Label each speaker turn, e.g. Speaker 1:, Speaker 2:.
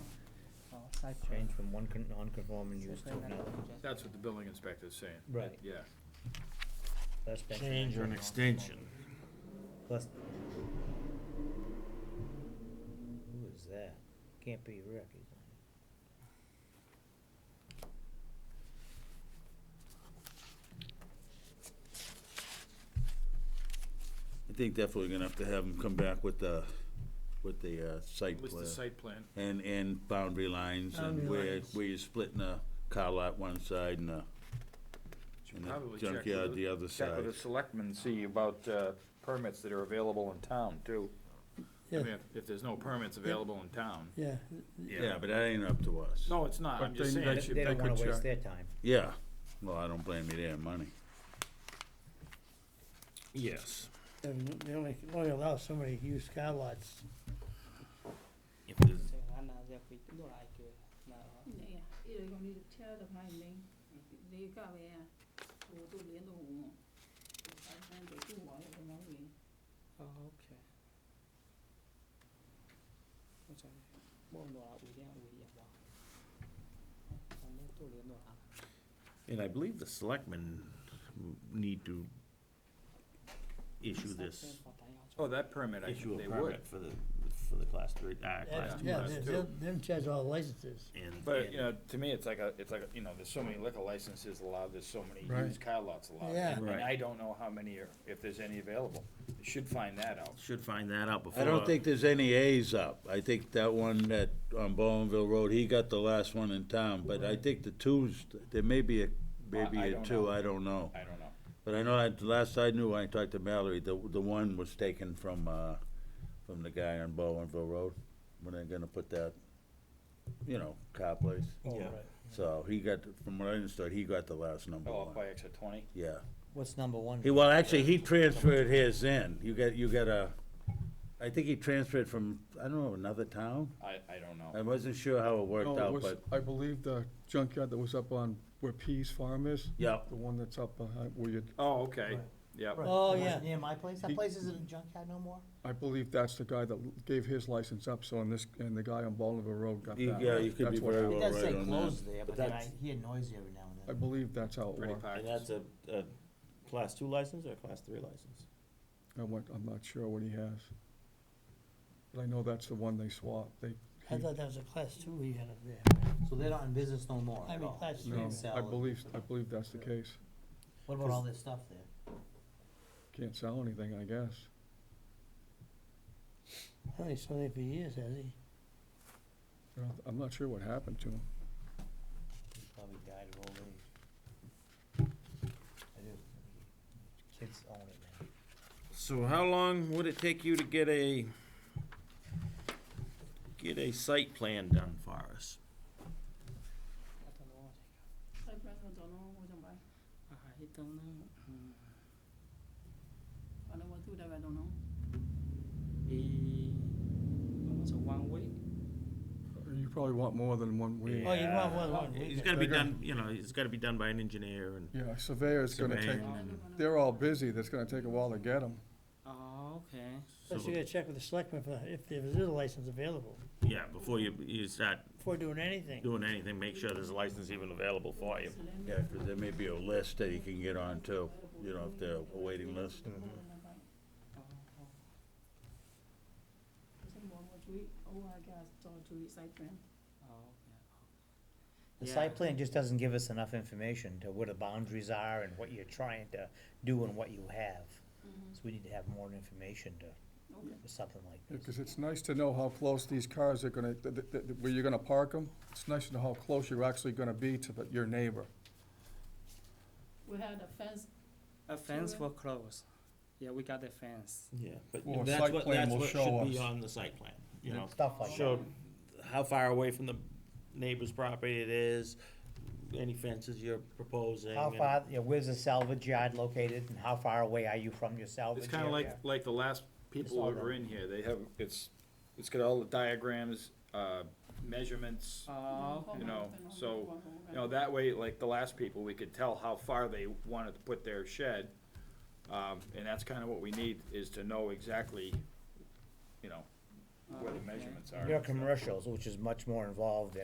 Speaker 1: site plan.
Speaker 2: Change from one con- non-conforming
Speaker 1: Site
Speaker 2: use to
Speaker 1: plan
Speaker 2: another.
Speaker 1: amendment, just-
Speaker 3: That's what the building inspector's saying,
Speaker 2: Right.
Speaker 3: yeah.
Speaker 2: That's basically
Speaker 4: Change or an
Speaker 2: non-conforming.
Speaker 4: extension.
Speaker 2: Plus. Who is that? Can't be Rick, is it?
Speaker 5: I think definitely gonna have to have them come back with the, with the, uh, site
Speaker 3: What's the
Speaker 5: plan.
Speaker 3: site plan?
Speaker 5: And, and boundary lines
Speaker 1: Boundary
Speaker 5: and where,
Speaker 1: lines.
Speaker 5: where you're splitting a car lot one side and a,
Speaker 3: Should
Speaker 5: and
Speaker 3: probably
Speaker 5: a
Speaker 3: check
Speaker 5: junkyard
Speaker 3: with
Speaker 5: the other
Speaker 6: Check with
Speaker 5: side.
Speaker 6: the selectmen, see about uh, permits that are available in town, too.
Speaker 3: I
Speaker 1: Yeah,
Speaker 3: mean, if- if there's no permits available in town.
Speaker 1: yeah,
Speaker 5: Yeah, but that ain't up to us.
Speaker 3: No, it's not, I'm
Speaker 4: But
Speaker 3: just
Speaker 4: then
Speaker 3: saying,
Speaker 4: they
Speaker 3: it
Speaker 4: should-
Speaker 3: should-
Speaker 2: They don't
Speaker 4: could
Speaker 2: wanna waste
Speaker 4: check.
Speaker 2: their time.
Speaker 5: Yeah, well, I don't blame you there, money.
Speaker 4: Yes.
Speaker 1: and they only, they only allow so many used car lots.
Speaker 4: If there's
Speaker 7: Nej, i ögonmilitära behandling, det är gav jag och då blir det hon. Jag kan inte tro vad jag vill.
Speaker 1: Oh, okay.
Speaker 4: And I believe the selectmen need to issue this,
Speaker 3: oh, that permit, I
Speaker 4: issue
Speaker 3: think
Speaker 4: a
Speaker 3: they would.
Speaker 4: permit for the, for the class three, uh, class two.
Speaker 1: Yeah,
Speaker 3: class
Speaker 1: they-
Speaker 3: two.
Speaker 1: they'll- them charge all licenses.
Speaker 4: And,
Speaker 3: But, you
Speaker 4: and,
Speaker 3: know, to me, it's like a, it's like, a- you know, there's so many liquor licenses allowed, there's so many
Speaker 1: Right.
Speaker 3: used car lots allowed.
Speaker 1: Yeah.
Speaker 3: And
Speaker 4: Right.
Speaker 3: I don't know how many are, if there's any available, You should find that out.
Speaker 4: should find that out before.
Speaker 5: I don't think there's any A's up. I think that one that, on Bowenville Road, he got the last one in town, but I think the twos, there may be a, maybe
Speaker 3: I
Speaker 5: a
Speaker 3: don't
Speaker 5: two,
Speaker 3: know.
Speaker 5: I don't know.
Speaker 3: I don't know.
Speaker 5: But I know, I, the last I knew, I talked to Mallory, the, the one was taken from, uh, from the guy on Bowenville Road, when they're gonna put that, you know, car place.
Speaker 8: Oh,
Speaker 4: Yeah.
Speaker 5: So he got, from what I understood, he got the last number
Speaker 3: Oh, up
Speaker 5: one,
Speaker 3: by extra twenty?
Speaker 5: yeah.
Speaker 2: What's number one?
Speaker 5: He, well, actually, he transferred his in, you got, you got a, I think he transferred from, I don't know, another town?
Speaker 3: I, I don't
Speaker 5: I
Speaker 3: know.
Speaker 5: wasn't sure how it
Speaker 8: No,
Speaker 5: worked
Speaker 8: Oh, it
Speaker 5: out,
Speaker 8: was,
Speaker 5: but,
Speaker 8: I believe the junkyard that was up on where Pease Farm is,
Speaker 5: yeah,
Speaker 8: the one that's up behind, where you,
Speaker 3: Oh, okay, yep.
Speaker 1: Oh, yeah.
Speaker 2: Near my place?
Speaker 8: He-
Speaker 2: That place isn't a junkyard no more?
Speaker 8: I believe that's the guy that gave his license up, so, and this, and the guy on Bolivar Road got that.
Speaker 5: You- yeah, you could
Speaker 8: That's
Speaker 5: be
Speaker 8: what
Speaker 5: very
Speaker 8: happened.
Speaker 5: well Oh, right on that.
Speaker 2: there,
Speaker 4: but then I
Speaker 2: hear noisy every now
Speaker 8: I believe that's how it
Speaker 3: Pretty
Speaker 8: worked.
Speaker 4: And
Speaker 3: packed.
Speaker 4: that's a, a class two license or a class three license?
Speaker 8: I went, I'm not sure what he has. But I know that's the one they swapped, they.
Speaker 1: I
Speaker 8: he-
Speaker 1: thought that was a class two we had up there.
Speaker 2: So they're not in business no more
Speaker 1: I mean, class three.
Speaker 8: No, I believe, I believe that's the case.
Speaker 2: What
Speaker 8: about all
Speaker 2: this stuff there?
Speaker 8: Can't sell anything, I guess.
Speaker 1: Only so many for years, has he?
Speaker 8: I don't- I'm not sure what happened to him.
Speaker 2: Probably died of old age. I do. Kids own it now.
Speaker 4: So how long would it take you to get a, get a site plan done for us?
Speaker 7: Jag brukar ta någon och de bara, ah, hitta någon. Och de var trodde jag var någon.
Speaker 8: You probably want more than one week.
Speaker 1: Oh, you want one, one week.
Speaker 4: It's uh, gotta be done, you know, it's gotta be done by an engineer and.
Speaker 8: Yeah, surveyor's gonna take,
Speaker 4: Surveying and-
Speaker 8: they're all busy, that's gonna take a while to get them.
Speaker 1: Plus you gotta check with the selectmen for, if there is a license available.
Speaker 4: Yeah, before you, you start
Speaker 1: Before doing anything,
Speaker 4: doing anything, make sure there's a license even available for you.
Speaker 5: Yeah, 'cause there may be a list that you can get on too, you know, if they're a waiting list.
Speaker 7: Sen var vårt week, oh, I got started to recite them.
Speaker 2: The site plan just doesn't give us enough information to what the boundaries are and what you're trying to do and what you have. So we need to have more information to,
Speaker 7: Okay.
Speaker 2: for something like this.
Speaker 8: Because it's nice to know how close these cars are gonna, th- th- th- where you're gonna park them. It's nice to know how close you're actually gonna be to the- your neighbor.
Speaker 7: We had a fence
Speaker 9: A fence
Speaker 7: Sure.
Speaker 9: for clothes. Yeah, we got the fence.
Speaker 4: Yeah, but
Speaker 8: Well, a
Speaker 4: that's
Speaker 8: site
Speaker 4: what,
Speaker 8: plan
Speaker 4: that's
Speaker 8: will
Speaker 4: what
Speaker 8: show
Speaker 4: should be
Speaker 8: us.
Speaker 4: on the site plan, you know.
Speaker 2: Stuff like that.
Speaker 4: Show how far away from the neighbor's property it is, any fences you're proposing.
Speaker 2: How
Speaker 4: and-
Speaker 2: far, you know, where's the salvage yard located and how far away are you from your salvage
Speaker 3: It's
Speaker 2: yard?
Speaker 3: kinda like, like the last people
Speaker 2: all
Speaker 3: who were in here, they have, it's, it's got all the diagrams, uh, measurements.
Speaker 9: Oh,
Speaker 3: You know, so, You know, that way, like the last people, we could tell how far they wanted to put their shed. Um, and that's kinda what we need, is to know exactly, you know, where the measurements are.
Speaker 2: Your commercials, which is much more involved